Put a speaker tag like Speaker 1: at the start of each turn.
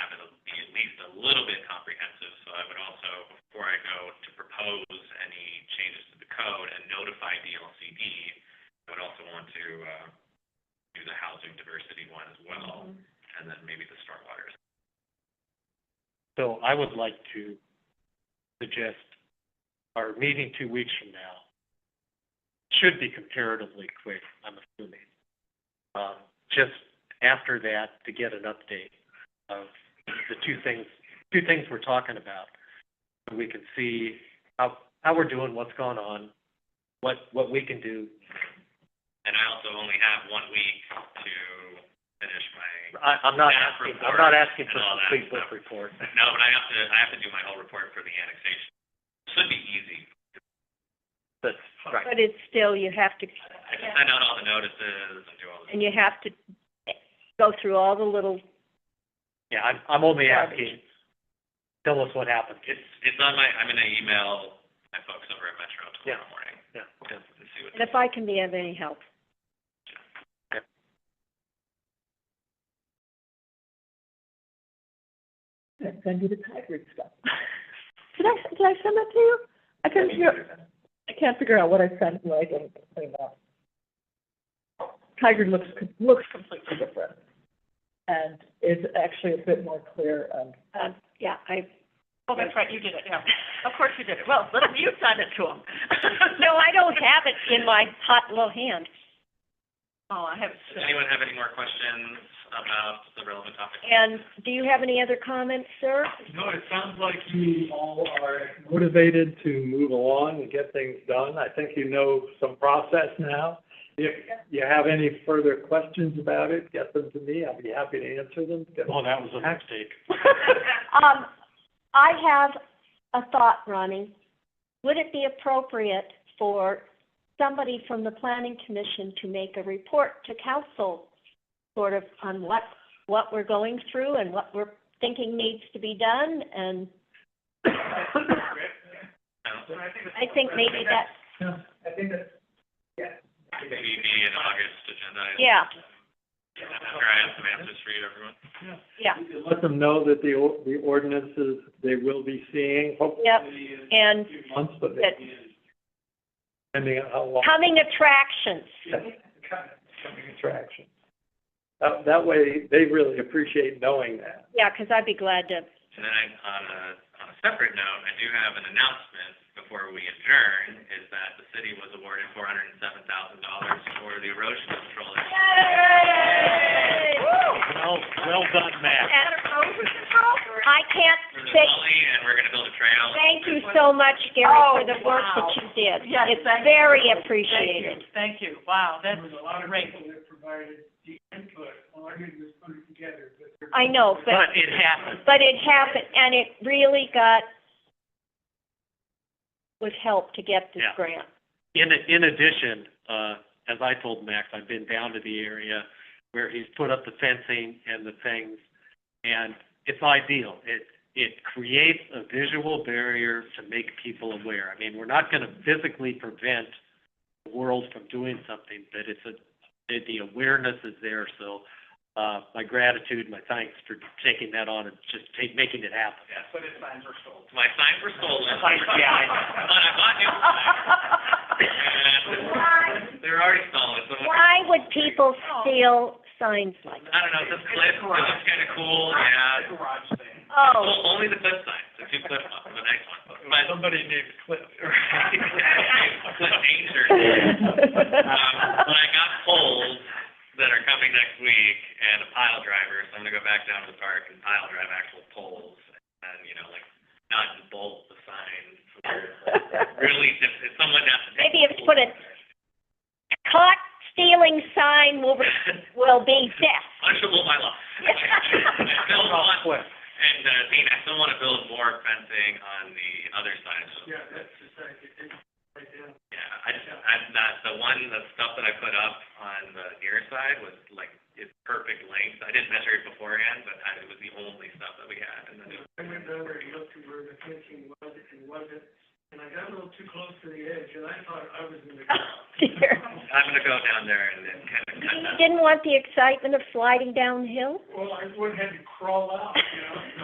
Speaker 1: uh,
Speaker 2: So I would like to suggest our meeting two weeks from now should be comparatively quick, I'm assuming. Um, just after that, to get an update of the two things, two things we're talking about. So we can see how, how we're doing, what's going on, what, what we can do.
Speaker 1: And I also only have one week to finish my,
Speaker 2: I, I'm not
Speaker 1: Staff
Speaker 2: asking, I'm
Speaker 1: report
Speaker 2: not asking for
Speaker 1: and all
Speaker 2: a
Speaker 1: that
Speaker 2: complete book
Speaker 1: stuff.
Speaker 2: report.
Speaker 1: no, but I have to, I have to do my whole report for the annexation. Should be easy.
Speaker 2: That's right.
Speaker 3: But it's still, you have to,
Speaker 1: I can send out all the notices and do all the,
Speaker 3: and you have to go through all the little,
Speaker 2: Yeah, I'm, I'm only
Speaker 3: Garbage.
Speaker 2: asking, tell us what happened.
Speaker 1: it's, it's on my, I'm gonna email my folks over at Metro tomorrow
Speaker 2: Yeah.
Speaker 1: morning
Speaker 2: Yeah, yeah.
Speaker 1: and see what.
Speaker 3: and if I can be of any help.
Speaker 4: send you the Tigard stuff. Did I, did I send that to you? I couldn't figure, I can't figure out what I sent, and what I didn't clean up. Tigard looks, looks completely different, and is actually a bit more clear and
Speaker 3: Um, yeah, I,
Speaker 5: Oh, that's right, you did it, yeah. Of course you did it. Well, let you send it to them.
Speaker 3: no, I don't have it in my hot little hand.
Speaker 5: Oh, I haven't.
Speaker 1: Does anyone have any more questions about the relevant topic?
Speaker 3: And do you have any other comments, sir?
Speaker 6: No, it sounds like you all are motivated to move along and get things done. I think you know some process now. If you have any further questions about it, get them to me. I'll be happy to answer them.
Speaker 2: Well, Oh, that was a mistake.
Speaker 3: Um, I have a thought, Ronnie. Would it be appropriate for somebody from the planning commission to make a report to council, sort of on what, what we're going through and what we're thinking needs to be done? And
Speaker 1: No?
Speaker 3: I think maybe that,
Speaker 6: I think that's,
Speaker 1: Maybe be an August agenda. item.
Speaker 3: yeah,
Speaker 1: After I have some answers for you, everyone.
Speaker 3: yeah,
Speaker 6: let them know that the, or- the ordinances they will be seeing, hopefully
Speaker 3: yep.
Speaker 6: in
Speaker 3: And
Speaker 6: a few months, but
Speaker 3: Good.
Speaker 6: maybe in- depending on how long.
Speaker 3: coming attractions.
Speaker 6: Coming attraction. That, that way, they really appreciate knowing that.
Speaker 3: Yeah, because I'd be glad to,
Speaker 1: And then I, on a, on a separate note, I do have an announcement before we adjourn, is that the city was awarded four hundred and seven thousand dollars for the erosion control.
Speaker 2: Well, well done, Matt.
Speaker 3: I can't
Speaker 1: For the
Speaker 3: say
Speaker 1: gully, and we're gonna build a trail.
Speaker 3: thank you so much, Gary, for the work that you did.
Speaker 5: Oh, Yes,
Speaker 3: It's
Speaker 5: thank you.
Speaker 3: very
Speaker 5: Thank you,
Speaker 3: appreciated.
Speaker 5: thank you. Wow, that's great.
Speaker 3: I know, but,
Speaker 2: But it happened.
Speaker 3: but it happened, and it really got, was help to get this
Speaker 2: Yeah.
Speaker 3: grant.
Speaker 2: In, in addition, uh, as I told Max, I've been down to the area where he's put up the fencing and the things, and it's ideal. It, it creates a visual barrier to make people aware. I mean, we're not gonna physically prevent the world from doing something, but it's a, the- the awareness is there, so, uh, my gratitude, my thanks for taking that on and just ta- making it happen.
Speaker 1: Yes, but his signs were stolen. My signs were stolen.
Speaker 2: Yeah, I
Speaker 1: But I bought new signs. And they're already stolen, so I
Speaker 3: Why would people steal signs like that?
Speaker 1: don't know, this clip, it looks kinda cool, yeah.
Speaker 3: Oh,
Speaker 1: Well, only the clip signs, the two clip ones, the nice ones, but.
Speaker 6: Somebody named Cliff.
Speaker 1: Clip danger. Um, but I got poles that are coming next week and a pile driver, so I'm gonna go back down to the park and pile drive actual poles. And, you know, like, not just bolt the sign, really, if, if someone has to.
Speaker 3: Maybe if you put a- caught stealing sign will, will be death.
Speaker 1: Punishable by law. I still want, and, uh, Dean, I still wanna build more fencing on the other side of the.
Speaker 6: Yeah, that's just, like, it- it- right there.
Speaker 1: Yeah, I just, I'm not, the one, the stuff that I put up on the near side was like, it's perfect length. I didn't measure it beforehand, but I, it was the only stuff that we had, and then it was.
Speaker 6: I went over and looked at where the fencing was and wasn't, and I got a little too close to the edge, and I thought I was in the.
Speaker 3: Oh, dear.
Speaker 1: I'm gonna go down there and then kind of cut
Speaker 3: You
Speaker 1: that.
Speaker 3: didn't want the excitement of sliding downhill?
Speaker 6: Well, I would have had to crawl out, you know?